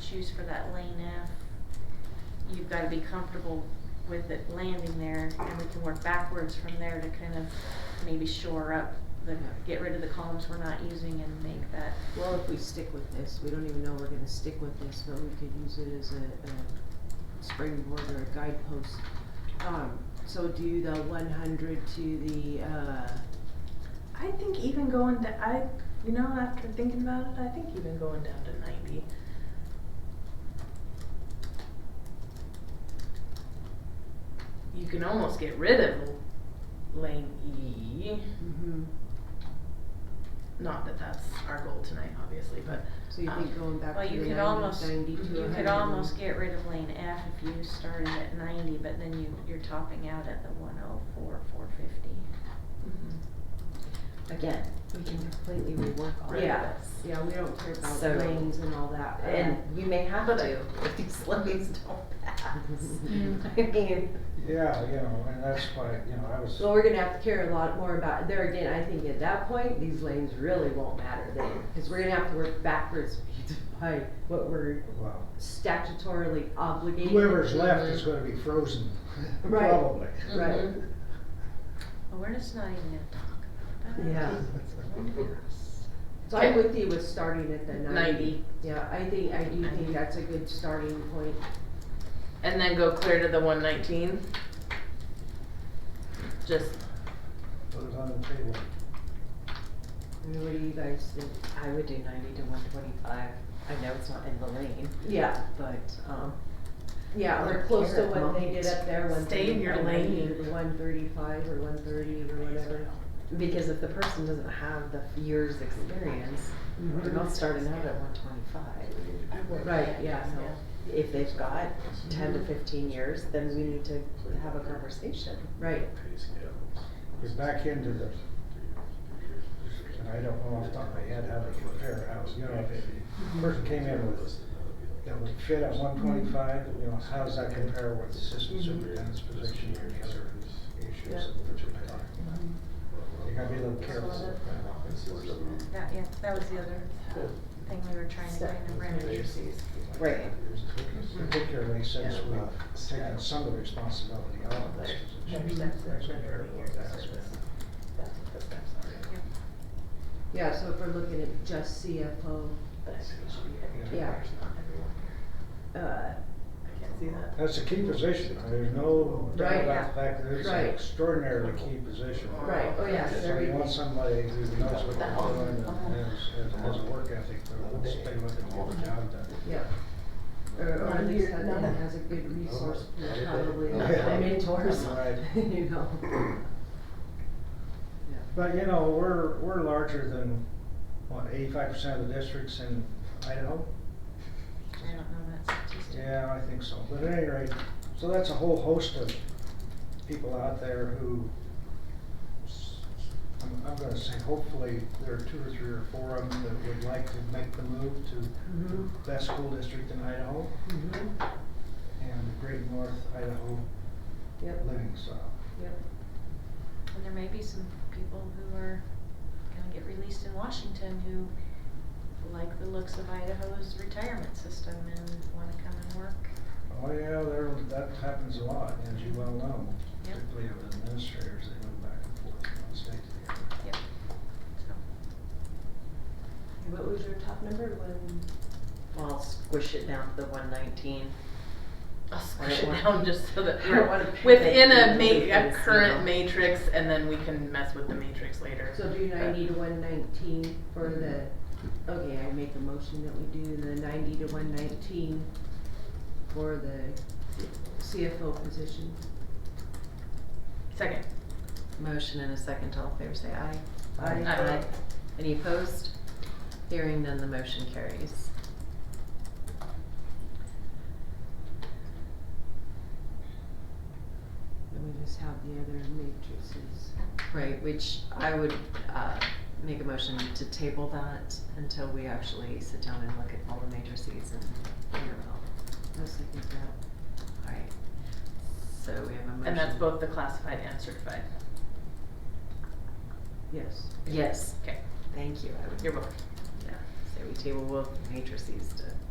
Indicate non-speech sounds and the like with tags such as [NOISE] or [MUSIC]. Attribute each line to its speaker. Speaker 1: choose for that lane F, you've gotta be comfortable with it landing there, and we can work backwards from there to kind of maybe shore up the, get rid of the columns we're not using and make that.
Speaker 2: Well, if we stick with this, we don't even know we're gonna stick with this, but we could use it as a, a springboard or a guidepost. Um, so do the one hundred to the, uh,
Speaker 3: I think even going to I you know after thinking about it, I think even going down to ninety. You can almost get rid of lane E.
Speaker 2: mhm.
Speaker 3: Not that that's our goal tonight, obviously, but
Speaker 2: so you think
Speaker 3: Um,
Speaker 2: going back
Speaker 1: Well,
Speaker 2: to
Speaker 1: you
Speaker 2: the
Speaker 1: could
Speaker 2: 90,
Speaker 1: almost,
Speaker 2: 90 to
Speaker 1: you
Speaker 2: 100.
Speaker 1: could almost get rid of lane F if you started at ninety, but then you, you're topping out at the one oh four, four fifty.
Speaker 3: mhm,
Speaker 4: Again, we can completely rework all of
Speaker 2: Yeah.
Speaker 4: this.
Speaker 2: Yeah, we don't care about
Speaker 4: So-
Speaker 2: lanes and all that, but-
Speaker 4: And we may have
Speaker 3: But
Speaker 4: to if [LAUGHS] these lanes don't [LAUGHS] pass.
Speaker 3: Mm.
Speaker 1: [LAUGHS]
Speaker 4: I mean,
Speaker 5: Yeah, you know, and that's why, you know, I was,
Speaker 2: Well, we're gonna have to care a lot more about, there again, I think at that point, these lanes really won't matter then, cause we're gonna have to work backwards [LAUGHS] by what we're
Speaker 5: well,
Speaker 2: statutorily obligated.
Speaker 5: whoever's left is gonna be frozen, [LAUGHS]
Speaker 2: Right.
Speaker 5: probably.
Speaker 2: Right,
Speaker 1: Well, we're just not even gonna talk about it.
Speaker 2: Yeah. so
Speaker 3: Okay.
Speaker 2: I'm with you with starting at the ninety.
Speaker 3: Ninety.
Speaker 2: Yeah, I think, I do think
Speaker 3: Ninety.
Speaker 2: that's a good starting point.
Speaker 3: and then go clear to the one nineteen. Just
Speaker 5: Put it on the table.
Speaker 4: I mean, what do you guys think? I would do ninety to one twenty-five. I know it's not in the lane,
Speaker 2: Yeah,
Speaker 4: but, um,
Speaker 2: yeah,
Speaker 4: Or
Speaker 2: we're close to
Speaker 4: carrot
Speaker 2: what they
Speaker 4: moment.
Speaker 2: did up there, one
Speaker 3: Stay in your lane.
Speaker 2: One thirty-five or one thirty or whatever.
Speaker 4: because if the person doesn't have the year's experience, they're not starting out at one twenty-five.
Speaker 2: Right, yeah,
Speaker 4: So if they've got ten to fifteen years, then we need to have a conversation.
Speaker 2: right.
Speaker 5: You're back into the, and I don't know off the top of my head how to compare houses, you know, if a person came in with, that would fit at one twenty-five, you know, how does that compare with the
Speaker 2: Mm-hmm.
Speaker 5: system superintendent's position or the other issues that we're talking about? You gotta be a little careful.
Speaker 1: That, yeah, that was the other thing we were trying to kind of remedy.
Speaker 4: Right.
Speaker 2: Mm-hmm.
Speaker 5: Particularly since we've taken some of the responsibility out of this position.
Speaker 2: Yeah, so if we're looking at just CFO, Yeah. uh,
Speaker 3: I can't see that.
Speaker 5: That's a key position, there's no doubt
Speaker 2: Right.
Speaker 5: about the fact that it's an
Speaker 2: Right.
Speaker 5: extraordinarily key position.
Speaker 2: Right, oh yes,
Speaker 5: So
Speaker 2: every,
Speaker 5: you want somebody who knows what they're doing and has, has a work ethic, that will stay with it, and get the job done.
Speaker 2: yeah. Or, or at
Speaker 6: None
Speaker 2: least
Speaker 6: here,
Speaker 2: that
Speaker 6: none.
Speaker 2: it has a good resource pool, probably,
Speaker 5: Oh, Yeah.
Speaker 2: and mentors,
Speaker 5: Right.
Speaker 2: [LAUGHS] you know.
Speaker 5: But, you know, we're, we're larger than, what, eighty-five percent of the districts in Idaho?
Speaker 1: I don't know that statistic.
Speaker 5: Yeah, I think so, but at any rate, so that's a whole host of people out there who, s- I'm, I'm gonna say hopefully there are two or three or four of them that would like to make the move to
Speaker 2: Mhm,
Speaker 5: best school district in Idaho
Speaker 2: mhm,
Speaker 5: and the great North Idaho
Speaker 2: yep,
Speaker 5: living style.
Speaker 2: yep,
Speaker 1: And there may be some people who are gonna get released in Washington who like the looks of Idaho's retirement system and wanna come and work.
Speaker 5: Oh, yeah, there, that happens a lot, as you well know,
Speaker 1: Yep.
Speaker 5: particularly of administrators, they move back and forth from one state to the other.
Speaker 1: Yep. So,
Speaker 2: what was your top number, one,
Speaker 4: I'll squish it down to the one nineteen.
Speaker 3: I'll
Speaker 4: I
Speaker 3: squish
Speaker 4: don't
Speaker 3: it
Speaker 4: want-
Speaker 3: down just so [LAUGHS] that
Speaker 4: I
Speaker 3: we're
Speaker 4: don't wanna pick
Speaker 3: within
Speaker 4: it
Speaker 3: a
Speaker 4: and
Speaker 3: ma- a
Speaker 4: everything's, you know.
Speaker 3: current matrix, and then we can mess with the matrix later.
Speaker 2: so do ninety to one nineteen for the, okay, I make a motion that we do the ninety to one nineteen for the CFO position.
Speaker 3: Second.
Speaker 4: Motion and a second, all in favor say aye.
Speaker 2: Aye.
Speaker 3: Aye.
Speaker 4: Any opposed? Hearing none, the motion carries.
Speaker 2: And we just have the other matrices.
Speaker 4: Right, which I would, uh, make a motion to table that until we actually sit down and look at all the matrices and figure it out.
Speaker 2: I second that.
Speaker 4: Alright, so we have a motion.
Speaker 3: And that's both the classified and certified.
Speaker 2: Yes.
Speaker 4: Yes.
Speaker 3: Okay.
Speaker 4: Thank you, I would,
Speaker 3: You're welcome.
Speaker 4: yeah, so we table both matrices to